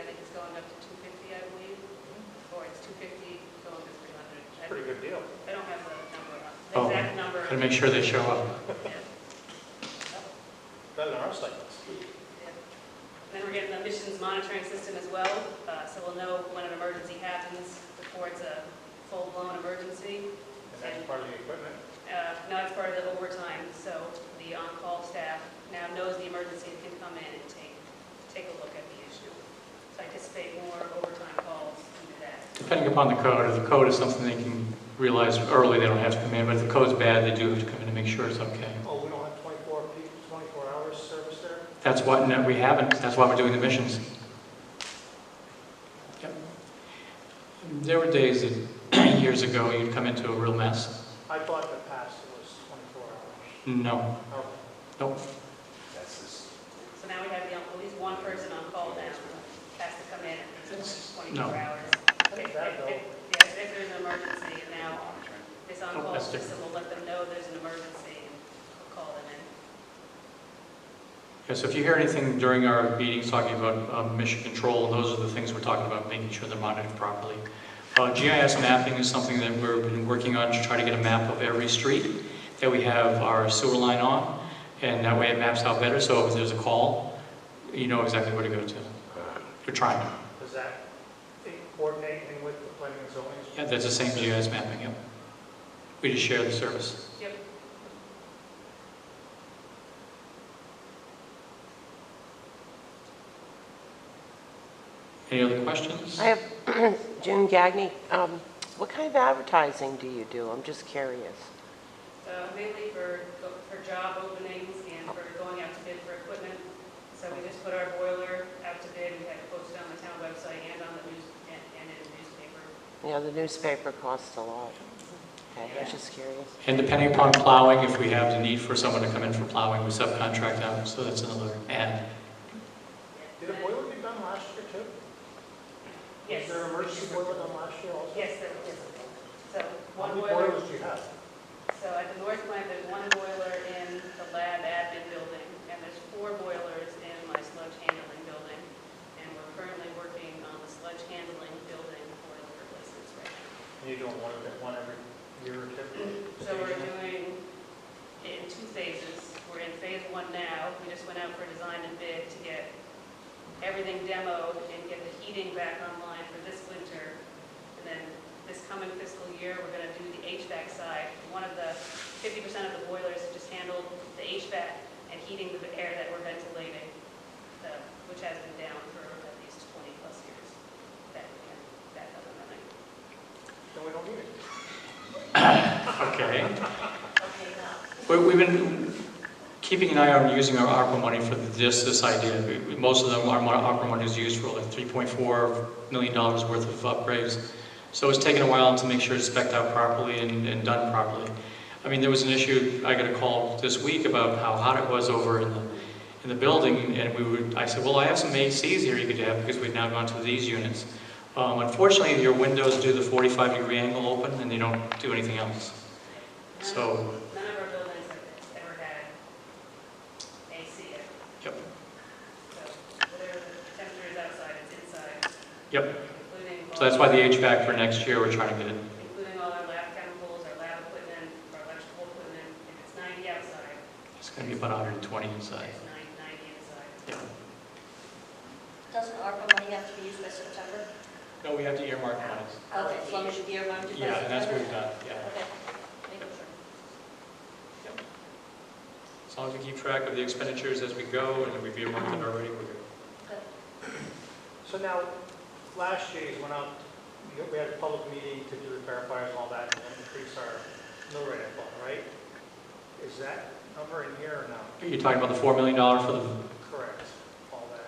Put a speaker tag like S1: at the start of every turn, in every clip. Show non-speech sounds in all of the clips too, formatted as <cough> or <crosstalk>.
S1: up to two fifty, I believe, or it's two fifty going to three hundred.
S2: It's a pretty good deal.
S1: I don't have the number, on- the
S3: Oh,
S1: exact number.
S3: Gotta make sure they show up.
S1: Yeah,
S2: Better than our stipends.
S1: yeah. Then we're getting an emissions monitoring system as well, uh, so we'll know when an emergency happens before it's a full-blown emergency.
S2: And that's part of the equipment.
S1: Uh, Now it's part of the overtime, so the on-call staff now knows the emergency and can come in and take, take a look at the issue. So I anticipate more overtime calls due to that.
S3: Depending upon the code, if the code is something they can realize early, they don't have to come in, but if the code's bad, they do have to come in to make sure it's okay.
S2: Oh, we don't have 24 people, 24 hours service there?
S3: That's why, no, we haven't, that's why we're doing the missions. Yep. There were days that, <clears throat> years ago, you'd come into a real mess.
S2: I thought the pass was 24 hours.
S3: No,
S2: Oh,
S3: nope,
S4: That's this,
S1: So now we have the- at least one person on call now, has to come in
S3: That's- no.
S1: 24 hours. If- if-
S2: That though.
S1: if- Yes, if there's an emergency, and now this
S3: Oh,
S1: on-call
S3: that's different.
S1: system will let them know there's an emergency and we'll call them in.
S3: Yeah, so if you hear anything during our meetings talking about um, mission control, those are the things we're talking about, making sure they're monitored properly. Uh, GIS mapping is something that we've been working on to try to get a map of every street that we have our sewer line on, and that way it maps out better, so if there's a call, you know exactly where to go to. We're trying.
S2: Does that coordinate anything with the planning and zoning?
S3: Yeah, that's the same GIS mapping, yep. We just share the service.
S1: Yep.
S3: Any other questions?
S5: I have <clears throat> June Gagny. Um, What kind of advertising do you do? I'm just curious.
S1: So uh, mainly for, for job openings and for going out to bid for equipment. So we just put our boiler out to bid, we had it posted on the town website and on the news, and and in the newspaper.
S5: You know, the newspaper costs a lot. Okay, I'm just curious.
S3: And depending upon plowing, if we have the need for someone to come in for plowing, we subcontract out, so that's another add.
S2: Did a boiler be done last year too?
S1: Yes,
S2: Was there an emergency boiler done last year also?
S1: yes, there was. So
S2: How
S1: one
S2: many
S1: boiler,
S2: boilers do you have?
S1: so at the north plant, there's one boiler in the lab admin building, and there's four boilers in my sludge handling building. And we're currently working on the sludge handling building boiler replacements right now.
S2: And you're doing one of it- one every year or two?
S1: So we're doing it in two phases. We're in phase one now. We just went out for design and bid to get everything demoed and get the heating back online for this winter. And then this coming fiscal year, we're gonna do the HVAC side. One of the, fifty percent of the boilers just handled the HVAC and heating the air that we're ventilating, uh, which has been down for at least twenty plus years. That, we can- that other running.
S2: Then we don't need it.
S3: Okay.
S1: Okay, now.
S3: We- We've been keeping an eye on using our ARPA money for this, this idea. We- we- Most of them, our mon- ARPA money is used for like $3.4 million dollars worth of upgrades. So it's taken a while to make sure it's spec'd out properly and and done properly. I mean, there was an issue, I got a call this week about how hot it was over in the, in the building, and we would, I said, well, I have some ACs here you could have, because we've now gone to these units. Um, Unfortunately, your windows do the 45-degree angle open, and they don't do anything else. So
S1: None of our buildings have ever had AC in it.
S3: Yep.
S1: So whatever the temperature is outside, it's inside.
S3: Yep.
S1: Including
S3: So that's
S1: all,
S3: why the HVAC for next year, we're trying to get it.
S1: including all our lab chemicals, our lab equipment, our electrical equipment. If it's 90 outside,
S3: It's going to be about 120 inside.
S1: it's 90 inside.
S3: Yeah.
S6: Doesn't ARPA money have to be used by September?
S3: No, we have to earmark monies.
S6: Okay, as long as you earmarked it by September?
S3: Yeah, and that's what we've done, yeah.
S6: Okay, making sure.
S3: As long as we keep track of the expenditures as we go, and we've earmarked it already, we're good.
S2: So now, last year, you went out, you- we had a public meeting to do the verifiers and all that, and increase our mill rate, I thought, right? Is that number in here or not?
S3: Are you talking about the $4 million for the,
S2: Correct, all that.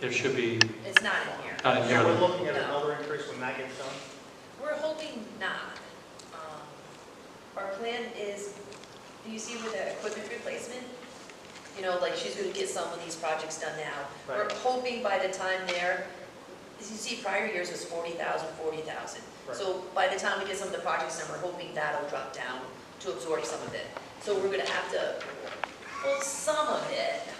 S3: there should be,
S7: It's not in here.
S3: not in
S2: So we're
S3: here.
S2: looking at another increase when that gets done?
S7: We're hoping not. Um, Our plan is, do you see with the equipment replacement? You know, like she's gonna get some of these projects done now. We're
S2: Right.
S7: hoping by the time there, as you see, prior years was forty thousand, forty thousand. So by the time we get some of the projects done, we're hoping that'll drop down to absorb some of it. So we're gonna have to pull some of it